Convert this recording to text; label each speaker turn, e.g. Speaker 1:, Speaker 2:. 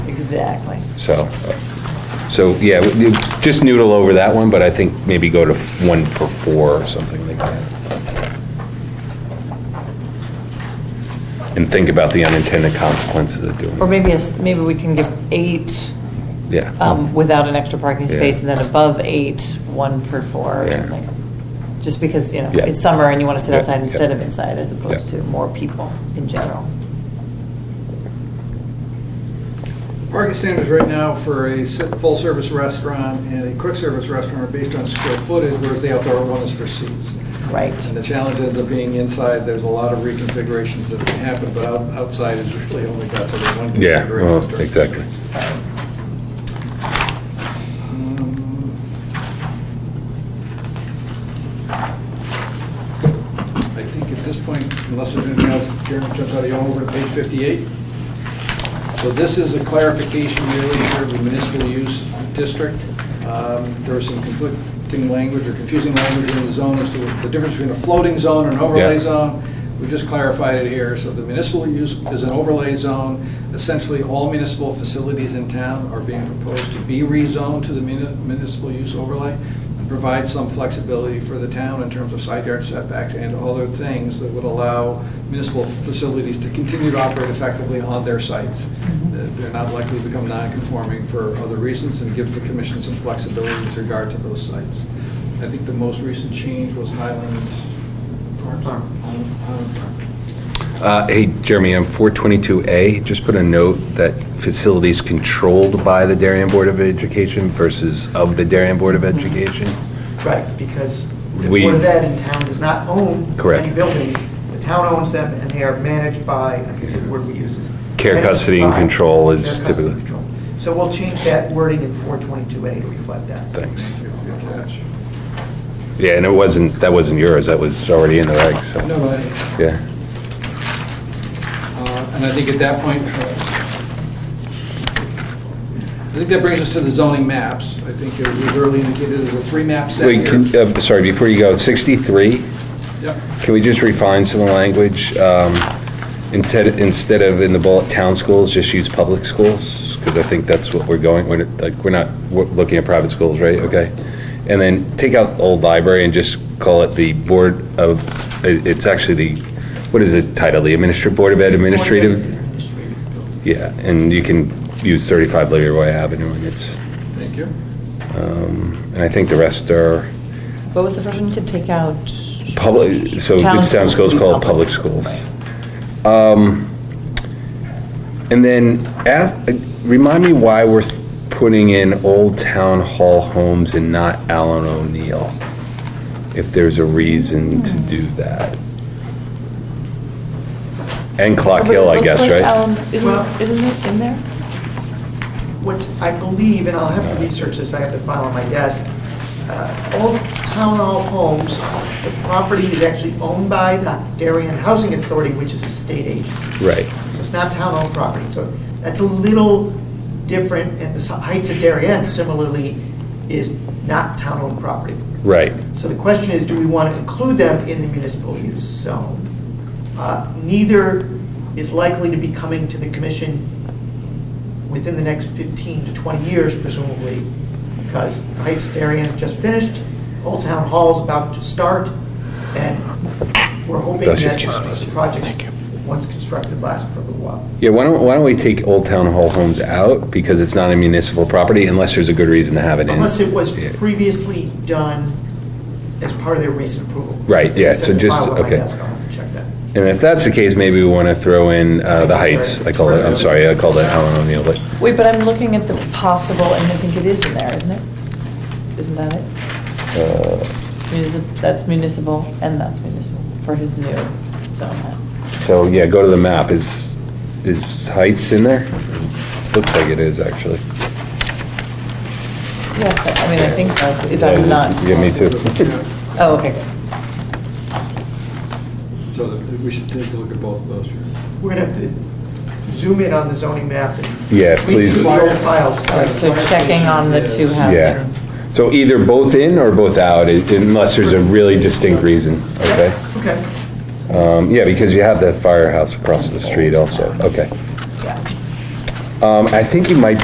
Speaker 1: Exactly.
Speaker 2: So, so, yeah, we- you just noodle over that one, but I think maybe go to f- one per four or something like that. And think about the unintended consequences of doing
Speaker 1: Or
Speaker 2: it.
Speaker 1: maybe, a s- maybe we can give eight
Speaker 2: Yeah,
Speaker 1: um, without an extra parking
Speaker 2: Oh. Yeah.
Speaker 1: space, and then above eight, one per four or
Speaker 2: Yeah.
Speaker 1: something. Just because, you know,
Speaker 2: Yeah.
Speaker 1: it's summer and you want to sit
Speaker 2: Yeah,
Speaker 1: outside
Speaker 2: yeah.
Speaker 1: instead of inside, as opposed
Speaker 2: Yeah.
Speaker 1: to more people in general.
Speaker 3: Market standards right now for a si- full-service restaurant and a quick-service restaurant are based on square footage, whereas the outdoor one is for seats. And the
Speaker 1: Right.
Speaker 3: challenge ends up being inside, there's a lot of reconfigurations that can happen, but out- outside is really only got sort of one
Speaker 2: yeah,
Speaker 3: configuration.
Speaker 2: well,
Speaker 3: during the
Speaker 2: exactly.
Speaker 3: seats. Um, I think at this point, unless there's anything else, Jeremy jumps out of you, over to page 58. So this is a clarification really here of the municipal use district. Um, There was some conflicting language or confusing language in the zone as to the difference between a floating zone and an overlay
Speaker 2: Yeah.
Speaker 3: zone. We just clarified it here. So the municipal use is an overlay zone. Essentially, all municipal facilities in town are being proposed to be rezoned to the muni- municipal use overlay and provide some flexibility for the town in terms of side yard setbacks and other things that would allow municipal facilities to continue to operate effectively on their sites. That They're not likely to become non-conforming for other reasons and gives the commission some flexibility with regard to those sites. I think the most recent change was Highlands Farms. Highland Farm.
Speaker 2: Uh, Hey, Jeremy, on 422A, just put a note that facilities controlled by the Darien Board of Education versus of the Darien Board
Speaker 1: Mm-hmm.
Speaker 2: of Education.
Speaker 4: Right, because the
Speaker 2: We-
Speaker 4: Board of Ed in town does not own
Speaker 2: Correct.
Speaker 4: any buildings. The town owns them, and they are managed by, I think the word we use is.
Speaker 2: Care,
Speaker 4: managed
Speaker 2: custody, and
Speaker 4: by-
Speaker 2: control is
Speaker 4: Care, custody,
Speaker 2: typically-
Speaker 4: and control. So we'll change that wording in 422A to reflect that.
Speaker 2: Thanks.
Speaker 3: Good catch.
Speaker 2: Yeah, and it wasn't, that wasn't yours, that was already in the regs, so.
Speaker 3: No, I-
Speaker 2: Yeah,
Speaker 3: Uh, And I think at that point, uh, I think that brings us to the zoning maps. I think it was early indicated there were three maps set
Speaker 2: wait, can,
Speaker 3: here.
Speaker 2: uh, sorry, before you go, 63,
Speaker 3: Yep.
Speaker 2: can we just refine some of the language? Um, Instead, instead of in the bullet, town schools, just use public schools? Because I think that's what we're going, we're, like, we're not w- looking at private schools, right? Okay. And then take out old library and just call it the Board of, it- it's actually the, what is it titled, the Administrative Board of Ed Administrative?
Speaker 4: Administrative building.
Speaker 2: Yeah, and you can use 35 Leroy Avenue, and it's,
Speaker 3: Thank you.
Speaker 2: um, and I think the rest are
Speaker 1: What was the first one you said, take out?
Speaker 2: public, so it's town schools
Speaker 1: to be
Speaker 2: called public schools.
Speaker 1: Right.
Speaker 2: Um, And then, ask, remind me why we're putting in Old Town Hall Homes and not Allen O'Neill, if there's a reason
Speaker 1: Hmm.
Speaker 2: to do that. And Clock
Speaker 1: Oh, but it
Speaker 2: Hill, I
Speaker 1: looks
Speaker 2: guess,
Speaker 1: like,
Speaker 2: right?
Speaker 1: um,
Speaker 4: Well-
Speaker 1: Isn't, isn't it in there?
Speaker 4: What I believe, and I'll have to research this, I have the file on my desk, uh, Old Town Hall Homes, the property is actually owned by the Darien Housing Authority, which is a state agency.
Speaker 2: Right,
Speaker 4: So It's not town-owned property, so that's a little different, and the Heights of Darien similarly is not town-owned property.
Speaker 2: right.
Speaker 4: So the question is, do we want to include them in the municipal use zone? Uh, Neither is likely to be coming to the commission within the next 15 to 20 years presumably, because the Heights of Darien just finished, Old Town Hall's about to start, and we're hoping
Speaker 2: That's
Speaker 4: that
Speaker 2: just-
Speaker 4: the projects, once constructed, last for a little while.
Speaker 2: Yeah, why don't, why don't we take Old Town Hall Homes out, because it's not a municipal property, unless there's a good reason to have it in.
Speaker 4: Unless it was
Speaker 2: Yeah.
Speaker 4: previously done as part of their recent approval.
Speaker 2: Right, yeah,
Speaker 4: As I said,
Speaker 2: so
Speaker 4: the
Speaker 2: just-
Speaker 4: file on my
Speaker 2: okay.
Speaker 4: desk, I'll have to check that.
Speaker 2: And if that's the case, maybe we want to throw in uh, the Heights. I call it, I'm sorry, I called it Allen O'Neill, but
Speaker 1: Wait, but I'm looking at the possible, and I think it is in there, isn't it? Isn't that it?
Speaker 2: uh,
Speaker 1: Municip- That's municipal, and that's municipal, for his new zone map.
Speaker 2: so, yeah, go to the map. Is, is Heights in there? Looks like it is, actually.
Speaker 1: Yes, I mean, I think that's, if I'm not.
Speaker 2: Yeah, me too.
Speaker 3: Yeah.
Speaker 1: Oh, okay, good.
Speaker 3: So that- we should take a look at both of those. here.
Speaker 4: We're gonna have to zoom in on the zoning map and.
Speaker 2: Yeah,
Speaker 4: read through
Speaker 2: please.
Speaker 4: the old files.
Speaker 1: All right, so checking on the two housing.
Speaker 2: Yeah. So either both in or both out, i- unless there's a really distinct reason, okay?
Speaker 4: Okay.
Speaker 2: Um, Yeah, because you have the firehouse across the street also, okay.
Speaker 1: Yeah.
Speaker 2: Um, I think you might